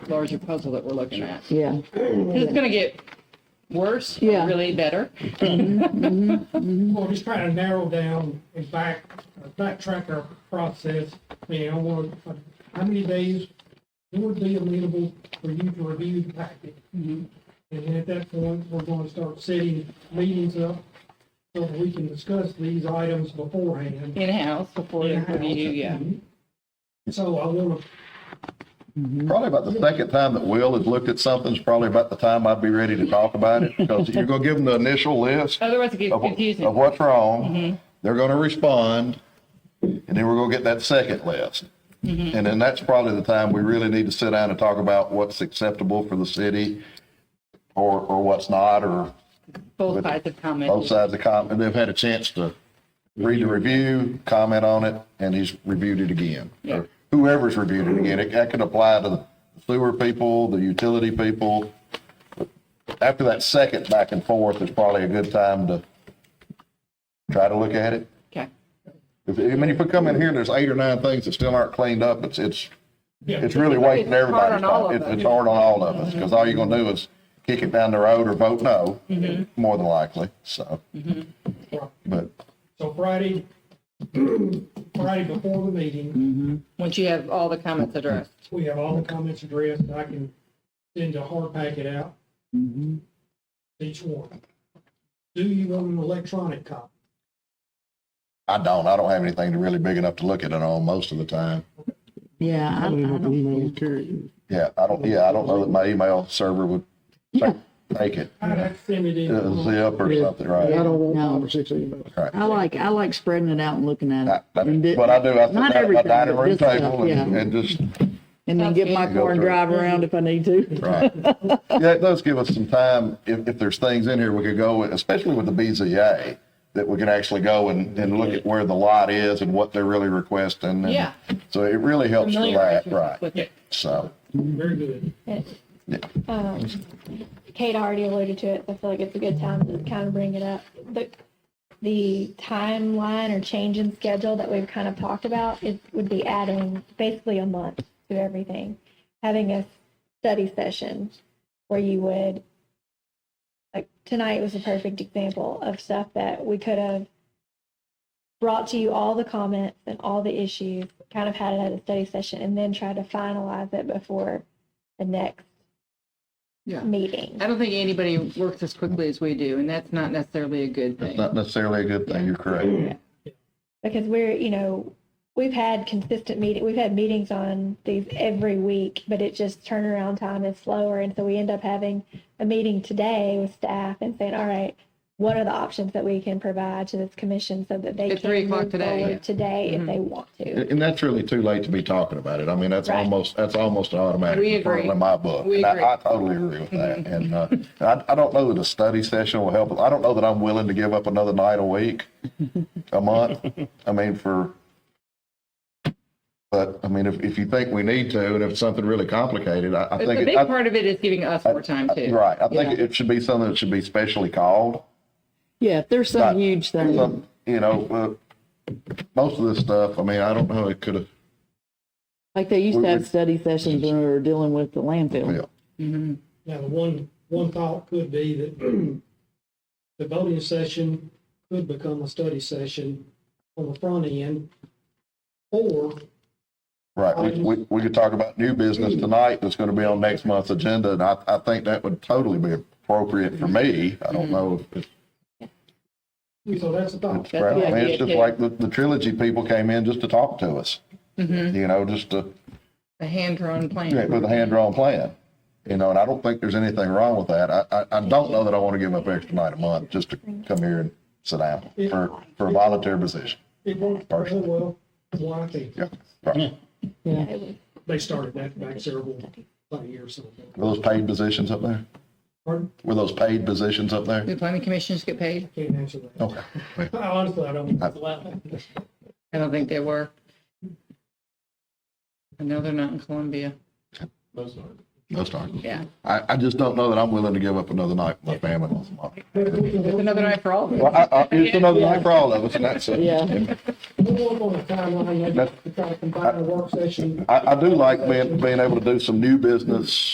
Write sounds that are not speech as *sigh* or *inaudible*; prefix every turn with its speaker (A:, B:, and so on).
A: larger puzzle that we're looking at.
B: yeah.
A: 'Cause it's going to get worse, or
B: Yeah.
A: really better.
C: Well, just trying to narrow down and back, uh, backtrack our process. I mean, I want, uh, how many days would be amenable for you to review the packet?
A: Mm-hmm.
C: And then at that point, we're going to start setting meetings up so that we can discuss these items beforehand.
A: In-house before the review, yeah.
C: So I want to,
D: Probably about the second time that Will has looked at something is probably about the time I'd be ready to talk about it because you're going to give them the initial list
A: Otherwise it gets
D: of, wh- of
A: Oh, confusing.
D: what's wrong. They're going to respond and then we're going to get that second list. And then that's probably the time we really need to sit down and talk about what's acceptable for the city or, or what's not, or
A: Both sides have commented.
D: both sides of the com, and they've had a chance to read the review, comment on it, and he's reviewed it again.
A: Yeah.
D: Or Whoever's reviewed it again, it, that could apply to the sewer people, the utility people. After that second back and forth is probably a good time to try to look at it.
A: Okay.
D: If, I mean, if we come in here and there's eight or nine things that still aren't cleaned up, it's, it's,
C: yeah,
D: it's really wasting
A: It's hard
D: everybody's
A: on all
D: time.
A: of
D: It's,
A: us.
D: it's hard on all of
B: Mm-hmm.
D: us, because all you're gonna do is kick it down the road or vote no,
B: Mm-hmm.
D: more than likely, so. But
C: so Friday, *clears throat* Friday before the meeting,
A: Once you have all the comments addressed.
C: We have all the comments addressed, I can send a hard packet out. Each one. Do you want an electronic copy?
D: I don't, I don't have anything really big enough to look at it on most of the time.
B: Yeah, I, I don't,
D: Yeah, I don't, yeah, I don't know that my email server would ta- take it,
C: I'd have to send it
D: uh,
C: in.
D: zip or something,
E: I
D: right?
E: don't want
B: No.
E: five or six emails.
D: Right.
B: I like, I like spreading it out and looking at
D: I-
B: it.
D: That's
B: And di-
D: what I do, I sit
B: Not
D: down at my
B: everything,
D: dining
B: but
D: room
B: this stuff,
D: table and,
B: yeah.
D: and just,
B: And then get my car and drive around if I need to.
D: right. Yeah, it does give us some time, if, if there's things in here we could go, with, especially with the BZA, that we can actually go and, and look at where the lot is and what they're really requesting. and-
A: Yeah.
D: So it really helps for
A: Familiarize
D: that,
A: yourself
D: right,
A: with it.
D: so,
C: Very good.
F: Um, Kate already alluded to it. but I feel like it's a good time to kind of bring it up. The, the timeline or change in schedule that we've kind of talked about, it would be adding basically a month to everything. Having a study session where you would, like, tonight was a perfect example of stuff that we could have brought to you all the comments and all the issues, kind of had it at a study session, and then try to finalize it before the next
A: Yeah.
F: meeting.
A: I don't think anybody works as quickly as we do, and that's not necessarily a good
D: it's
A: thing.
D: not necessarily a good thing, you're correct.
F: because we're you know we've had consistent meeting we've had meetings on these every week but it just turnaround time is slower and so we end up having a meeting today with staff and saying all right what are the options that we can provide to this commission so that they
A: At
F: can
A: three o'clock
F: move
A: today,
F: forward
A: yeah. Mm-hmm.
F: today if they want to
D: And and that's really too late to be talking about it. I mean, that's
F: Right.
D: almost, that's almost an automatic.
A: We
D: referral
A: agree.
D: In my book.
A: We
D: And I-
A: agree.
D: I totally agree
A: *laughs*
D: with that. And, uh, and I, I don't know that a study session will help. I don't know that I'm willing to give up another night a week, a month. I mean, for, but I mean, if, if you think we need to, and if it's something really complicated, I, I
A: But
D: think.
A: the
D: it-
A: big
D: I-
A: part of it is giving us more time too.
D: Right. I think it should be something that should be specially called.
B: Yeah, if there's some
D: Right.
B: huge thing,
D: Some- You know, uh, most of this stuff, I mean, I don't know, it could have,
B: like they used
D: we-
B: to have
D: we-
B: study sessions when we were dealing with the landfill.
D: well,
C: Now, the one, one thought could be that *clears throat* the voting session could become a study session on the front end. Or
D: Right, we, we, we could talk about new business tonight that's gonna be on next month's agenda, and I, I think that would totally be appropriate for me. I don't know if it's,
C: So that's a thought.
A: That's
D: I mean,
A: the Mm-hmm. idea,
D: it's just
A: too.
D: like the, the trilogy people came in just to talk to us.
A: Mm-hmm.
D: You know, just to,
A: The hand-drawn
D: yeah,
A: plan.
D: with a hand-drawn plan, you know, and I don't think there's anything wrong with that. I, I, I don't know that I wanna give up extra night a month just to come here and sit down for, for a volunteer position.
C: It worked very well. Why, I think
D: Yeah, right.
F: it was
C: they started that back several, like years ago.
D: Were those paid positions up there?
C: Pardon?
D: Were those paid positions up there?
A: Do planning commissioners get paid?
C: Can't answer that.
D: Okay.
C: Honestly, I don't. Well,
A: I don't think they were. I know they're not in Columbia.
D: No start.
A: Yeah.
D: I, I just don't know that I'm willing to give up another night with my family.
A: It's another night for all of us.
D: Well, I, I, it's another night for all of us, and that's it.
B: Yeah.
C: we'll work on a timeline, maybe,
D: That's-
C: to try to combine a work session
D: I, I do like being, being able to do some new business